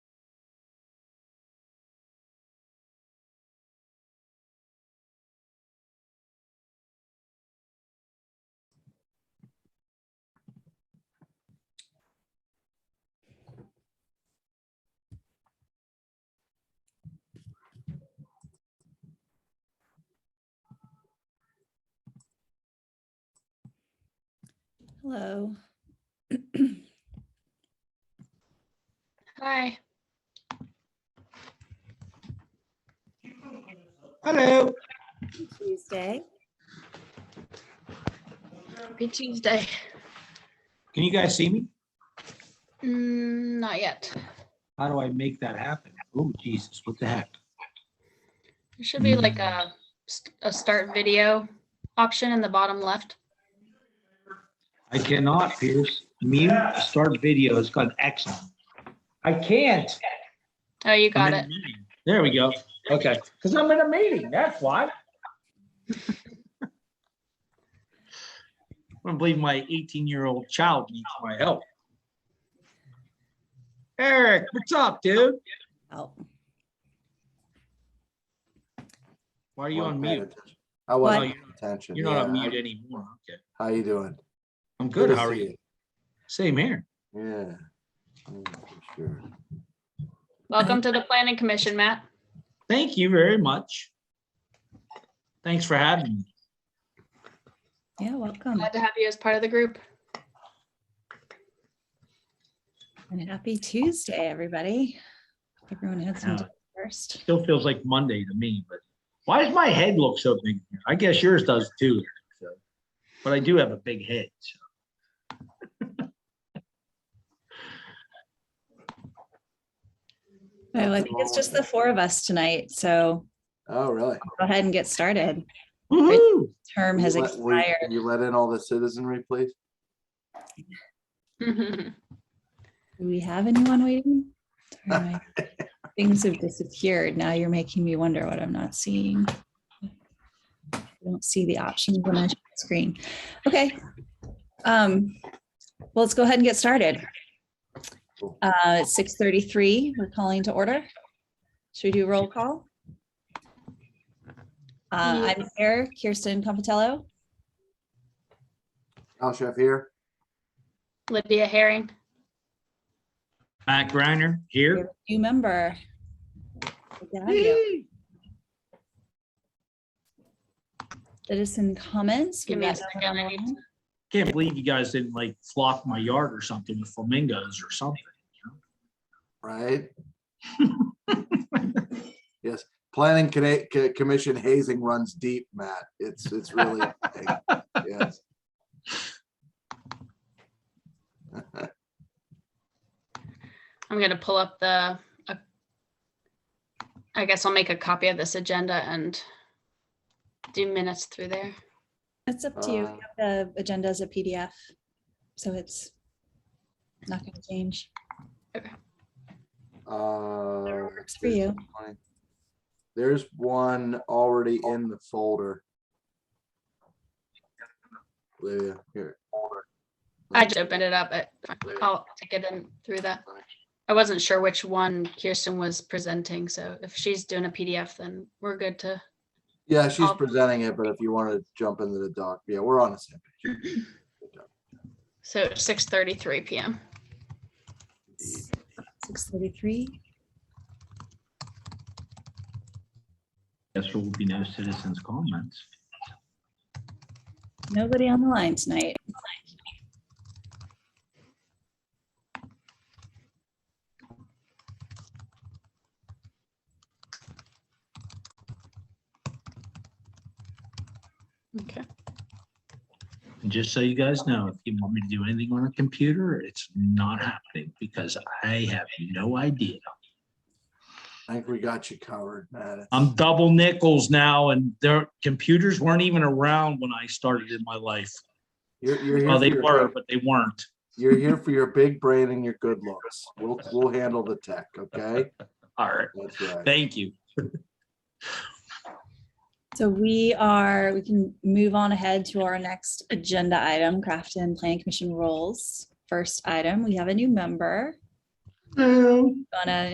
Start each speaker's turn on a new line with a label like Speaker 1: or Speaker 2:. Speaker 1: Hello.
Speaker 2: Hi.
Speaker 3: Hello.
Speaker 1: Tuesday.
Speaker 2: Happy Tuesday.
Speaker 3: Can you guys see me?
Speaker 2: Mm, not yet.
Speaker 3: How do I make that happen? Oh, Jesus, what the heck?
Speaker 2: There should be like a, st- a start video option in the bottom left.
Speaker 3: I cannot, Pierce. Mute, start video. It's got an X. on it. I can't.
Speaker 2: Oh, you
Speaker 3: I'm
Speaker 2: got
Speaker 3: in a
Speaker 2: it.
Speaker 3: meeting. There we go. Okay, because I'm in a meeting, that's why. I believe my eighteen-year-old child needs my help. Eric, what's up, dude?
Speaker 1: Oh,
Speaker 3: Why are you
Speaker 4: Wasn't
Speaker 3: on
Speaker 4: paying
Speaker 3: mute?
Speaker 4: attention. I
Speaker 3: What?
Speaker 4: wasn't paying attention.
Speaker 3: You're not on
Speaker 4: Yeah,
Speaker 3: mute anymore. Okay,
Speaker 4: How you doing?
Speaker 3: I'm good.
Speaker 4: to
Speaker 3: How are
Speaker 4: see
Speaker 3: you? Same here.
Speaker 4: Yeah. Yeah, for Sure.
Speaker 2: Welcome to the planning commission, Matt.
Speaker 3: Thank you very much. Thanks for having me.
Speaker 1: yeah, welcome
Speaker 2: Glad to have you as part of the group.
Speaker 1: and happy Tuesday, everybody. Hope Everyone had some
Speaker 3: Yeah.
Speaker 1: time first.
Speaker 3: Still feels like Monday to me, but why does my head look so big? I guess yours does too. Eric, so. But I do have a big head. so.
Speaker 1: Well, I think it's just the four of us tonight, so
Speaker 4: Oh, really?
Speaker 1: go ahead and get started.
Speaker 3: Woohoo!
Speaker 1: Term has
Speaker 4: You let- will you-
Speaker 1: expired.
Speaker 4: You let in all the citizenry, please?
Speaker 1: Do we have anyone waiting? Sorry, my Things have disappeared. Now you're making me wonder what I'm not seeing. I don't see the options on my screen. Okay. Um, well, let's go ahead and get started.
Speaker 4: Cool.
Speaker 1: Uh, it's 6:33. We're calling to order. Should we do roll call? Uh, I'm here, Kirsten Confitello.
Speaker 4: Al Chef here?
Speaker 2: Lydia Herring.
Speaker 3: Matt Griner
Speaker 1: You're
Speaker 3: here.
Speaker 1: a New member. Good to have you.
Speaker 3: Yee.
Speaker 1: Citizen comments.
Speaker 2: Give me a
Speaker 1: We've got
Speaker 2: second, I need
Speaker 1: online.
Speaker 3: Can't believe you guys didn't like flock my yard or something with flamingos or something.
Speaker 4: Right? Yes, planning Conne- Co- commission hazing runs deep, Matt. It's, it's really. Yes.
Speaker 2: I'm gonna pull up the, uh, I guess I'll make a copy of this agenda and do minutes through there.
Speaker 1: It's up to you.
Speaker 4: Uh,
Speaker 1: We have The agenda is a PDF, so it's not going to change.
Speaker 4: Uh,
Speaker 1: Whatever works for you.
Speaker 4: There's one already in the folder. Lydia, here.
Speaker 2: I just opened it up, but I'll take it in through that. I wasn't sure which one Kirsten was presenting, so if she's doing a PDF, then we're good to.
Speaker 4: Yeah, she's
Speaker 2: I'll-
Speaker 4: presenting it, but if you want to jump into the doc, yeah, we're on the same page.
Speaker 2: So six thirty-three PM.
Speaker 1: Six thirty-three.
Speaker 3: Guess there will be no citizens' comments.
Speaker 1: Nobody on the line tonight.
Speaker 2: Okay.
Speaker 3: And just so you guys know, if you want me to do anything on a computer, it's not happening because I have no idea.
Speaker 4: I think we got you covered, Matt.
Speaker 3: I'm double nickels now and their computers weren't even around when I started in my life.
Speaker 4: You're, you're here
Speaker 3: Well,
Speaker 4: for
Speaker 3: they
Speaker 4: your-
Speaker 3: were, but they weren't.
Speaker 4: You're here for your big brain and your good looks. We'll, we'll handle the tech, okay?
Speaker 3: All right.
Speaker 4: That's right.
Speaker 3: Thank you.
Speaker 1: So we are, we can move on ahead to our next agenda item, Crafton Planning Commission rules. First item, we have a new member.
Speaker 3: Um,
Speaker 1: Gonna